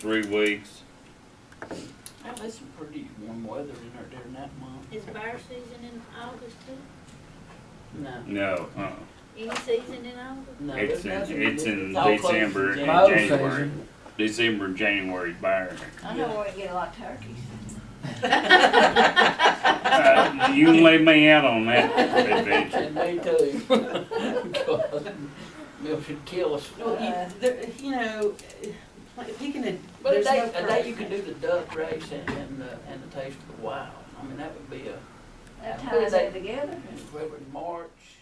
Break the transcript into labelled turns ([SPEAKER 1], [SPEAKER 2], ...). [SPEAKER 1] three weeks.
[SPEAKER 2] Now, there's some pretty warm weather in there during that month.
[SPEAKER 3] Is fire season in August too?
[SPEAKER 2] No.
[SPEAKER 1] No, uh,
[SPEAKER 3] Any season in August?
[SPEAKER 2] No,
[SPEAKER 1] It's
[SPEAKER 2] there's
[SPEAKER 1] in-
[SPEAKER 2] nothing.
[SPEAKER 1] it's in
[SPEAKER 2] all closed
[SPEAKER 1] December
[SPEAKER 2] in
[SPEAKER 1] and
[SPEAKER 2] January.
[SPEAKER 4] Mow
[SPEAKER 1] January.
[SPEAKER 4] season.
[SPEAKER 1] December and January buyer.
[SPEAKER 5] I know where we get a lot of turkeys.
[SPEAKER 1] Uh, you can lay me out on that adventure.
[SPEAKER 2] And they do. God, They should kill us. Uh,
[SPEAKER 6] Well, you, there, you know, like picking a.
[SPEAKER 2] But a
[SPEAKER 6] there's
[SPEAKER 2] day,
[SPEAKER 6] no
[SPEAKER 2] a day you could
[SPEAKER 6] perfect.
[SPEAKER 2] do the duck race and, and the, and the taste of the wild. I mean, that would be a,
[SPEAKER 5] That ties it together.
[SPEAKER 2] February, March.